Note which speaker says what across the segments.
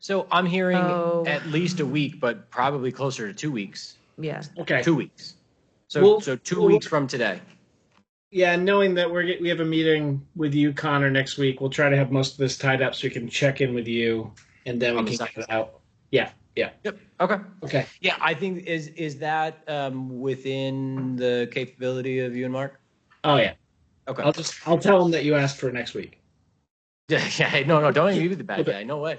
Speaker 1: So I'm hearing
Speaker 2: Oh.
Speaker 1: at least a week, but probably closer to two weeks.
Speaker 2: Yeah.
Speaker 3: Okay.
Speaker 1: Two weeks. So
Speaker 3: Well-
Speaker 1: so 2
Speaker 3: well-
Speaker 1: weeks from today.
Speaker 3: Yeah, and knowing that we're get, we have a meeting with you, Connor, next week, we'll try to have most of this tied up so we can check in with you, and then we
Speaker 1: On the
Speaker 3: can
Speaker 1: second.
Speaker 3: get it out. Yeah, yeah.
Speaker 1: Yep. Okay.
Speaker 3: Okay.
Speaker 1: Yeah, I think is is that um, within the capability of you and Mark?
Speaker 3: Oh yeah.
Speaker 1: Okay.
Speaker 3: I'll just I'll tell them that you asked for next week.
Speaker 1: yeah, yeah, no, no, don't even be the bad guy. No way.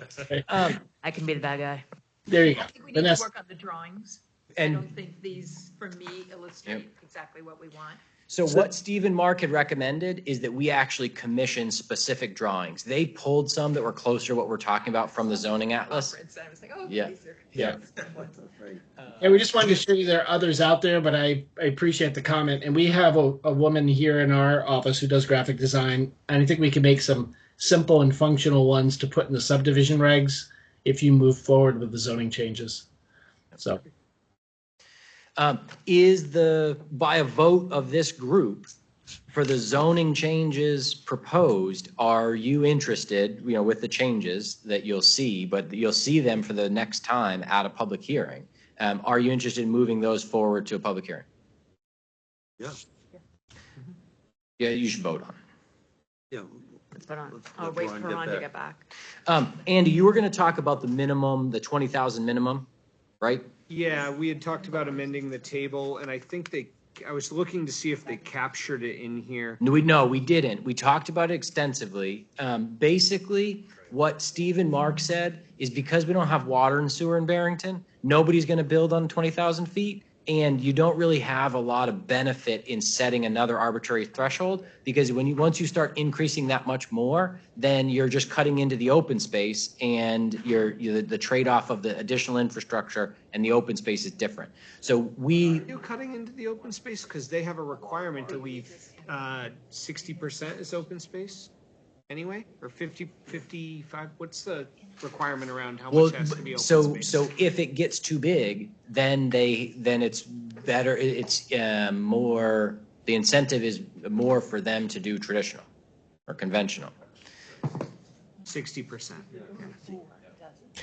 Speaker 1: Um,
Speaker 2: I can be the bad guy.
Speaker 3: Uh, There you
Speaker 4: I
Speaker 3: go.
Speaker 4: think we need to
Speaker 3: Vanessa.
Speaker 4: work on the drawings. I
Speaker 1: and
Speaker 4: don't think these, for me, illustrate exactly what we want.
Speaker 1: so,
Speaker 3: So-
Speaker 1: what Steve and Mark had recommended is that we actually commission specific drawings. They pulled some that were closer to what we're talking about from the zoning atlas.
Speaker 4: Conference, and I was like, oh,
Speaker 1: Yeah.
Speaker 4: these are.
Speaker 3: Yeah. And
Speaker 1: Uh,
Speaker 3: we just wanted to show you there are others out there, but I, I appreciate the comment. And we have a, a woman here in our office who does graphic design, and I think we can make some simple and functional ones to put in the subdivision regs if you move forward with the zoning changes. So
Speaker 1: um, is the by a vote of this group for the zoning changes proposed? Are you interested? You know, with the changes that you'll see, but you'll see them for the next time at a public hearing. Um, are you interested in moving those forward to a public hearing?
Speaker 5: Yeah,
Speaker 1: Yeah, you should vote on. it.
Speaker 5: yeah.
Speaker 2: Let's put on.
Speaker 5: Let's
Speaker 2: I'll
Speaker 5: let
Speaker 2: wait
Speaker 5: Ron
Speaker 2: for
Speaker 5: get
Speaker 2: Ron to
Speaker 5: back.
Speaker 2: get back.
Speaker 1: Um, Andy, you were gonna talk about the minimum, the twenty thousand minimum, right?
Speaker 6: Yeah, we had talked about amending the table, and I think they, I was looking to see if they captured it in here.
Speaker 1: No, we, no, we didn't. We talked about it extensively. Um, basically, what Steve and Mark said is because we don't have water and sewer in Barrington, nobody's gonna build on twenty thousand feet. And you don't really have a lot of benefit in setting another arbitrary threshold because when you, once you start increasing that much more, then you're just cutting into the open space and you're, you the trade-off of the additional infrastructure and the open space is different. So we,
Speaker 6: Are you cutting into the open space? Because they have a requirement that we, sixty percent is open space anyway, or 50, 55. what's the requirement around how
Speaker 1: Well,
Speaker 6: much has to be
Speaker 1: b-
Speaker 6: open
Speaker 1: so,
Speaker 6: space?
Speaker 1: so if it gets too big, then they, then it's better, i- it's um, more, the incentive is more for them to do traditional or conventional.
Speaker 6: Sixty percent.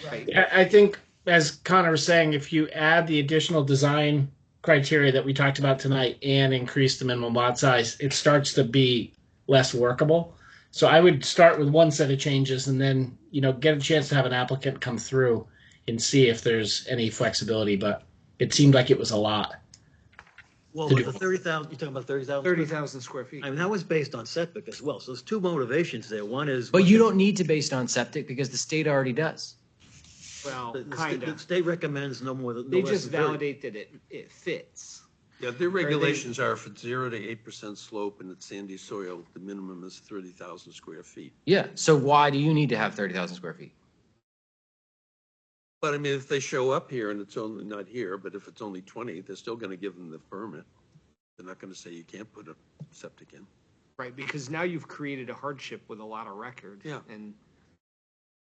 Speaker 3: I I think, as Connor was saying, if you add the additional design criteria that we talked about tonight and increase the minimum lot size, it starts to be less workable. So I would start with one set of changes and then, you know, get a chance to have an applicant come through and see if there's any flexibility, but it seemed like it was a lot.
Speaker 5: Well,
Speaker 3: To
Speaker 5: with
Speaker 3: do-
Speaker 5: the thirty thousand, you're talking about thirty thousand?
Speaker 6: Thirty thousand square feet.
Speaker 5: I mean, that was based on setback as well, so there's two motivations there, one is.
Speaker 1: But you don't need to base it on septic because the state already does.
Speaker 6: Well,
Speaker 5: The- the state-
Speaker 6: kind
Speaker 5: the
Speaker 6: of.
Speaker 5: state recommends no more than. no
Speaker 6: They
Speaker 5: less
Speaker 6: just
Speaker 5: than 30.
Speaker 6: validate that it, it fits.
Speaker 5: Yeah, their regulations are for zero to eight percent slope and it's sandy soil, the minimum is thirty thousand square feet.
Speaker 1: Yeah, so why do you need to have thirty thousand square feet?
Speaker 5: But I mean, if they show up here and it's only, not here, but if it's only twenty, they're still gonna give them the permit. They're not gonna say you can't put a septic in.
Speaker 6: Right, because now you've created a hardship with a lot of record.
Speaker 5: Yeah.
Speaker 6: And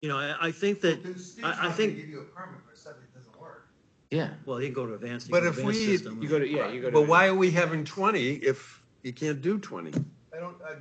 Speaker 5: You know, I, I think that, I, I think,
Speaker 7: Give you a permit for something that doesn't work.
Speaker 1: Yeah,
Speaker 5: well, you can go to advanced. you
Speaker 7: But
Speaker 5: can
Speaker 7: if
Speaker 5: advanced
Speaker 7: we-
Speaker 5: system.
Speaker 6: you go to, yeah, you go to.
Speaker 5: But why are we having twenty if you can't do twenty?
Speaker 7: I don't, I.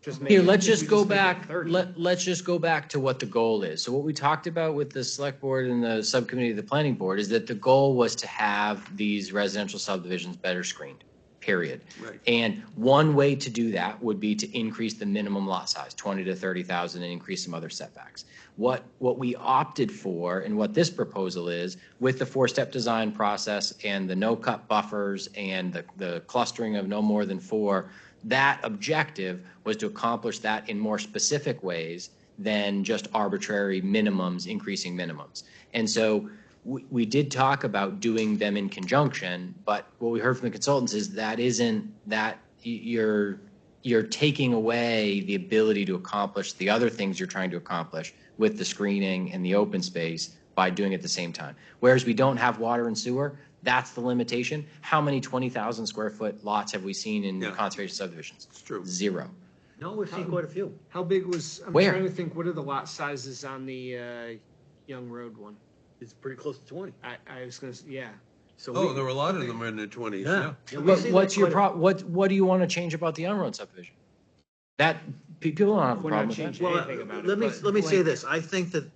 Speaker 6: Just
Speaker 1: here,
Speaker 6: make it-
Speaker 1: let's
Speaker 6: we
Speaker 1: just go
Speaker 6: make it
Speaker 1: back,
Speaker 6: 30.
Speaker 1: let, let's just go back to what the goal is. So what we talked about with the select board and the subcommittee of the planning board is that the goal was to have these residential subdivisions better screened, period.
Speaker 5: Right.
Speaker 1: And one way to do that would be to increase the minimum lot size, 20 to 30,000, and increase some other setbacks. What, what we opted for and what this proposal is, with the four-step design process and the no-cut buffers and the, the clustering of no more than four, that objective was to accomplish that in more specific ways than just arbitrary minimums, increasing minimums. And so we, we did talk about doing them in conjunction, but what we heard from the consultants is that isn't, that y- you're, you're taking away the ability to accomplish the other things you're trying to accomplish with the screening and the open space by doing it at the same time. Whereas we don't have water and sewer, that's the limitation. How many 20,000 square foot lots have we seen in
Speaker 5: Yeah.
Speaker 1: conservation subdivisions?
Speaker 5: It's true.
Speaker 1: Zero.
Speaker 5: No, we've seen quite a few.
Speaker 6: How big was, I'm
Speaker 1: Where?
Speaker 6: trying to think, what are the lot sizes on the uh, Young Road one?
Speaker 5: It's pretty close to twenty.
Speaker 6: I, I was gonna, s- yeah.
Speaker 5: So
Speaker 7: Oh,
Speaker 5: we-
Speaker 7: there were a lot of them in their twenties, yeah.
Speaker 5: Yeah, we
Speaker 1: What,
Speaker 5: see that
Speaker 1: what's your
Speaker 5: quite a-
Speaker 1: pro, what, what do you want to change about the on-road subdivision? That, pe- people don't have a
Speaker 6: We're
Speaker 1: problem
Speaker 6: not
Speaker 1: with that.
Speaker 6: changing
Speaker 5: Well, uh,
Speaker 6: anything about it.
Speaker 5: let me,
Speaker 6: but-
Speaker 5: let me say this, I think that